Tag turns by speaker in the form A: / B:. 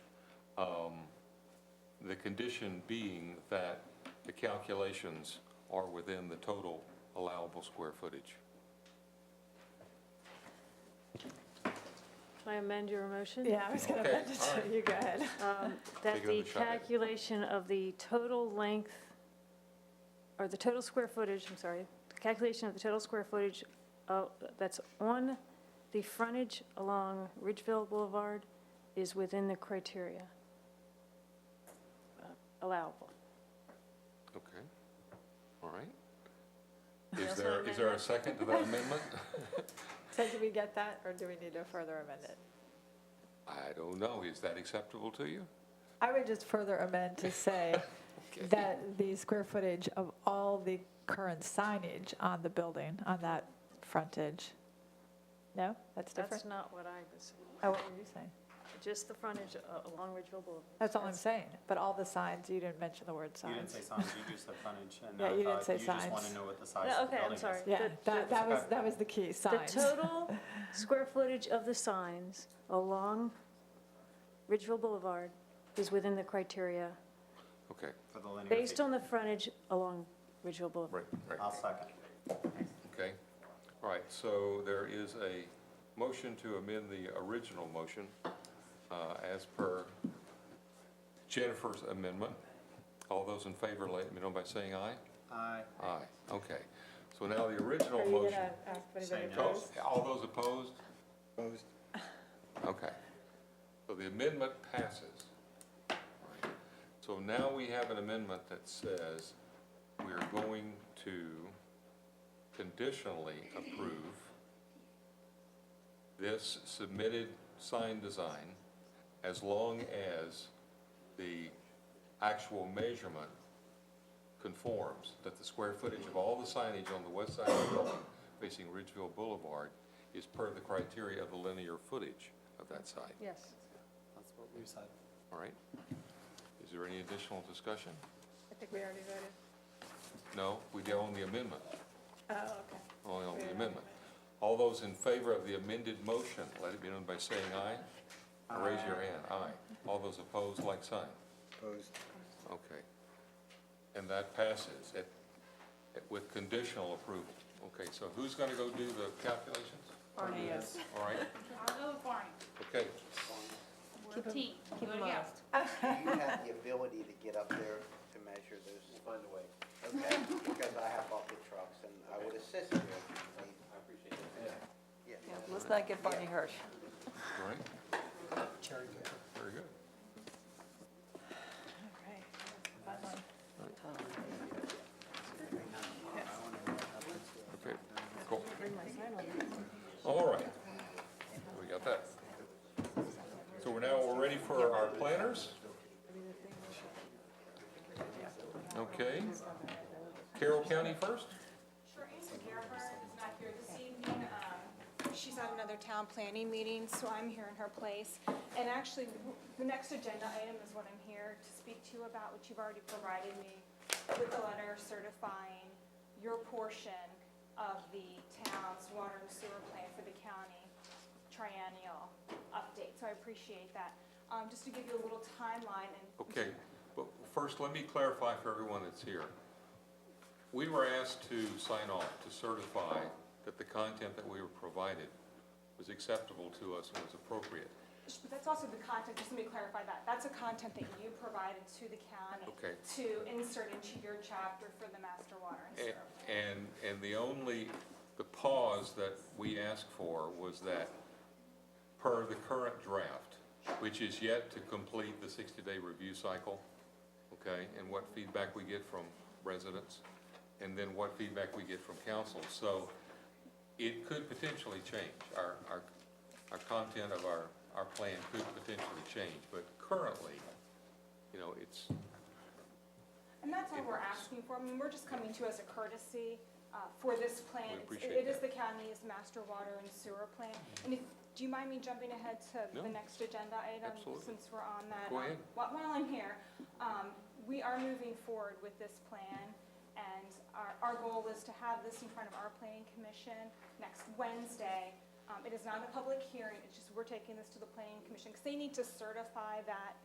A: Um, The condition being that the calculations are within the total allowable square footage.
B: Can I amend your motion?
C: Yeah, I was gonna
A: Okay,
C: mention,
A: all right.
C: you go ahead.
B: Um, That
A: Take
B: the
A: another shot at it.
B: calculation of the total length, or the total square footage, I'm sorry, the calculation of the total square footage uh, that's on the frontage along Ridgeville Boulevard is within the criteria uh, allowable.
A: Okay, all right.
B: Yes,
A: Is
B: I
A: there, is there a
B: amend
A: second to that amendment?
C: So did we get that, or do we need to further amend it?
A: I don't know, is that acceptable to you?
C: I would just further amend to say that the square footage of all the current signage on the building, on that frontage. No, that's different?
B: That's not what I was,
C: Oh, what were you saying?
B: just the frontage uh, along Ridgeville Boulevard.
C: That's all I'm saying, but all the signs, you didn't mention the word
D: You didn't say
C: signs.
D: signs, you just said frontage, and
C: Yeah,
D: I
C: you didn't
D: thought
C: say
D: you just want
C: signs.
D: to know what the size
B: No,
D: of
B: okay,
D: the
B: I'm
D: building is.
B: sorry.
C: Yeah,
B: The-
C: that,
B: the-
C: that was, that was the key,
B: The
C: signs.
B: total square footage of the signs along Ridgeville Boulevard is within the criteria,
A: Okay,
D: For the linear
B: based
D: feet.
B: on the frontage along Ridgeville Boulevard.
A: right, right.
D: I'll second.
A: Okay, all right, so there is a motion to amend the original motion uh, as per Jennifer's amendment. All those in favor, let me know by saying aye.
D: Aye.
A: Aye, okay. So now the original
C: Are you
A: motion.
C: gonna ask if
D: Say
C: anybody
D: no.
C: opposed?
A: All those opposed? Opposed. Okay. So the amendment passes. Right. So now we have an amendment that says we're going to conditionally approve this submitted sign design as long as the actual measurement conforms, that the square footage of all the signage on the west side of the building facing Ridgeville Boulevard is per the criteria of the linear footage of that site,
B: Yes.
D: That's what we said.
A: all right? Is there any additional discussion?
C: I think we already voted.
A: No, we did on the amendment,
C: Oh, okay.
A: only on the amendment. All those in favor of the amended motion, let it be known by saying aye. Or Raise your hand, aye. All those opposed, like sign.
E: Opposed?
A: Okay. And that passes it, it- with conditional approval. Okay, so who's gonna go do the calculations?
F: Barney, yes.
A: All right,
F: I'll go with Barney.
A: okay.
F: We're a team. Keep him honest.
E: Do you have the ability to get up there to measure those? Find a way. Okay, because I have bucket trucks and I would assist you if you need. I appreciate it. Yeah.
G: Let's not get Barney Hirsch.
A: All right. Very good. Okay, cool. All right. We got that. So we're now, we're ready for our planners? Okay. Carroll County first?
H: Sure, Ann Gerber is not here this evening. Um, She's at another town planning meeting, so I'm here in her place. And actually, the next agenda item is what I'm here to speak to you about, which you've already provided me with a letter certifying your portion of the town's water and sewer plan for the county triennial update. So I appreciate that. Um, Just to give you a little timeline and
A: Okay, but first, let me clarify for everyone that's here. We were asked to sign off to certify that the content that we were provided was acceptable to us and was appropriate.
H: Sh- But that's also the content, just let me clarify that, that's a content that you provided to the county.
A: Okay.
H: To insert into your chapter for the master water and sewer.
A: A- And, and the only, the pause that we asked for was that, per the current draft, which is yet to complete the 60-day review cycle, okay, and what feedback we get from residents, and then what feedback we get from council. So it could potentially change. Our, our, our content of our, our plan could potentially change, but currently, you know, it's,
H: And that's all we're asking for, I mean, we're just coming to you as a courtesy uh, for this plan.
A: We
H: It's-
A: appreciate
H: It is
A: that.
H: the county's master water and sewer plan. And if, do you mind me jumping ahead to
A: No.
H: the next agenda item?
A: Absolutely.
H: Since we're on that.
A: Go
H: Um,
A: ahead.
H: whi- While I'm here, um, we are moving forward with this plan, and our, our goal is to have this in front of our planning commission next Wednesday. Um, It is not a public hearing, it's just we're taking this to the planning commission, because they need to certify that